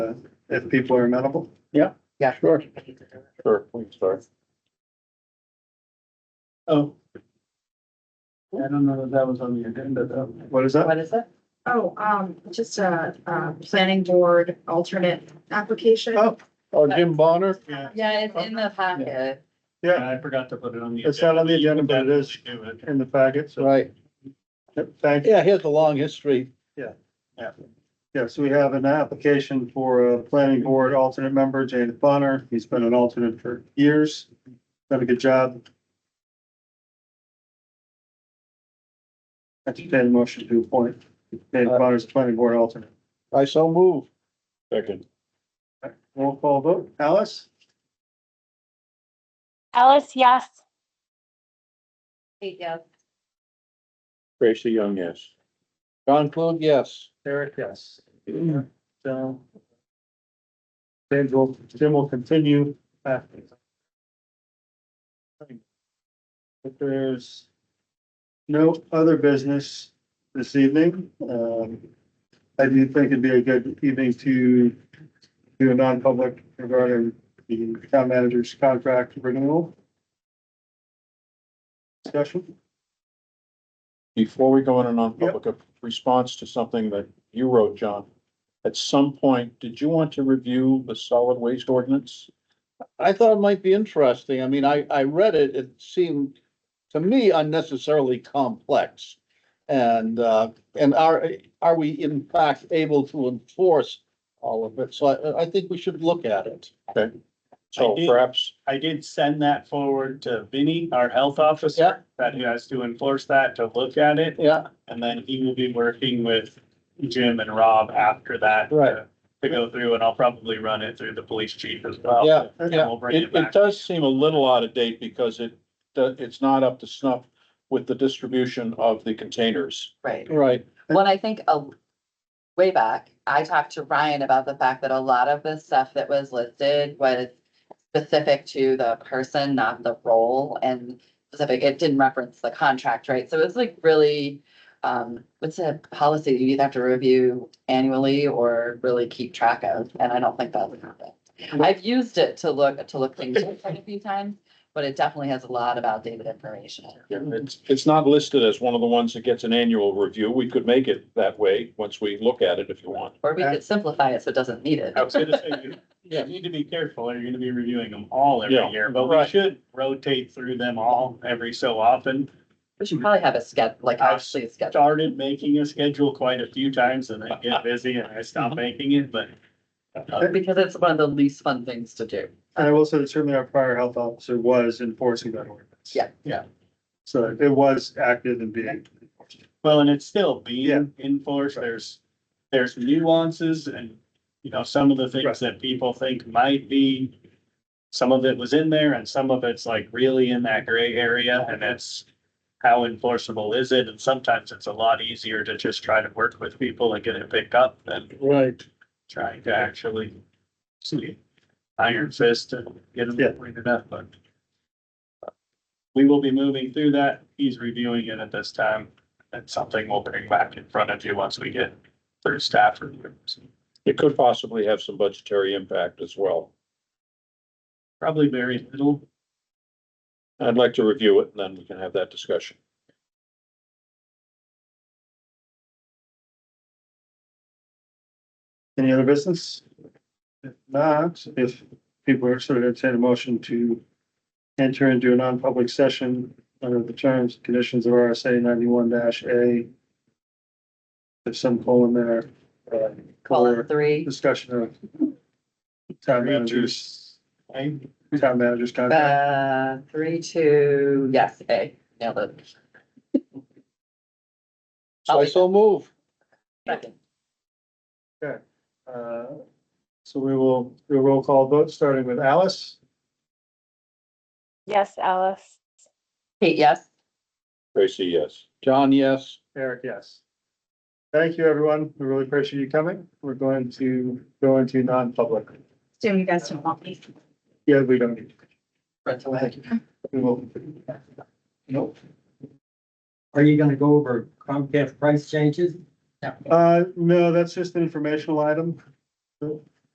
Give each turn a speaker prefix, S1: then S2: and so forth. S1: if people are amenable.
S2: Yeah, sure.
S3: Sure, we can start.
S1: Oh,
S2: I don't know if that was on the agenda though.
S1: what is that?
S4: What is it?
S5: Oh, um, just a, uh, planning board alternate application.
S1: Oh,
S3: Oh, Jim Bonner,
S4: Yeah, it's in the packet.
S1: yeah,
S2: I forgot to put it on the.
S1: it's not on the agenda, but it is in the packet, so
S3: right.
S1: Yep, thank you.
S3: Yeah, he has a long history.
S1: Yes, we have an application for a planning board alternate member, Jane Bonner. He's been an alternate for years. Done a good job. Entertained a motion to appoint Jane Bonner as planning board alternate.
S3: I so move. Second.
S1: Roll call vote. Alice?
S6: Alice, yes.
S4: Kate, yes.
S3: Tracy Young, yes. John Clune, yes.
S1: Eric, yes. So. Then will Jim will continue after. If there's no other business this evening, um, I do think it'd be a good evening to do a non-public regarding the town manager's contract renewal. Discussion?
S3: Before we go in a non-public, a response to something that you wrote, John. At some point, did you want to review the solid waste ordinance? I thought it might be interesting. I mean, I, I read it, it seemed to me unnecessarily complex. And, uh, and are, are we in fact able to enforce all of it? So I, I think we should look at it. Okay. So
S2: I did-
S3: perhaps,
S2: I did send that forward to Vinnie, our health officer, that he has to enforce that, to look at it.
S3: yeah,
S2: And then he will be working with Jim and Rob after that. to-
S3: Right.
S2: To go through and I'll probably run it through the police chief as well.
S3: Yeah,
S2: And
S3: yeah.
S2: we'll bring it
S3: It, it
S2: back.
S3: does seem a little out of date because it, the- it's not up to snuff with the distribution of the containers.
S4: Right.
S3: Right.
S4: When I think a way back, I talked to Ryan about the fact that a lot of the stuff that was listed was specific to the person, not the role and specific, it didn't reference the contract, right? So it's like really, um, what's a policy you either have to review annually or really keep track of, and I don't think that would happen. I've used it to look, to look things up quite a few times, but it definitely has a lot of outdated information.
S3: It's, it's not listed as one of the ones that gets an annual review. We could make it that way once we look at it if you want.
S4: Or we could simplify it so it doesn't need it.
S2: I was gonna say, you-
S3: Yeah.
S2: you need to be careful, or you're gonna be reviewing them all every
S3: Yeah,
S2: year, but we
S3: right.
S2: should rotate through them all every so often.
S4: We should probably have a schedule, like
S2: I've
S4: actually a schedule.
S2: started making a schedule quite a few times and I get busy and I
S3: Mm-hmm.
S2: stop making it, but. uh,
S4: Because it's one of the least fun things to do.
S1: And I will say that certainly our prior health officer was enforcing that ordinance.
S4: Yeah.
S2: Yeah.
S1: So it was active and being enforced.
S2: Well, and it's still
S1: Yeah.
S2: being enforced. There's, there's nuances and, you know, some of the
S1: Right.
S2: things that people think might be. Some of it was in there and some of it's like really in that gray area and that's. How enforceable is it? And sometimes it's a lot easier to just try to work with people and get it picked up than
S3: Right.
S2: trying to actually. See, iron fist and get
S1: Yeah.
S2: them pointed up, but. We will be moving through that. He's reviewing it at this time. That's something we'll bring back in front of you once we get through staff reviews.
S3: It could possibly have some budgetary impact as well.
S2: Probably very little.
S3: I'd like to review it and then we can have that discussion.
S1: Any other business? If not, if people are sort of entertain a motion to enter into a non-public session under the terms, and conditions of RSA ninety-one dash A. There's some colon there, uh,
S4: Column
S1: for
S4: three,
S1: discussion of town managers,
S2: Hey,
S1: town managers contract.
S4: uh, three, two, yes, A, nailed it.
S3: So I so move.
S4: Second.
S1: Uh, So we will do a roll call vote, starting with Alice,
S6: Yes, Alice.
S4: Kate, yes?
S3: Tracy, yes. John, yes.
S1: Eric, yes. Thank you, everyone. We really appreciate you coming. We're going to go into non-public.
S5: Assume you guys don't want me.
S1: Yeah, we don't need to.
S4: Runs away.
S1: We will.
S7: Nope. Are you gonna go over Comcast price changes?
S1: Uh, no, that's just an informational item.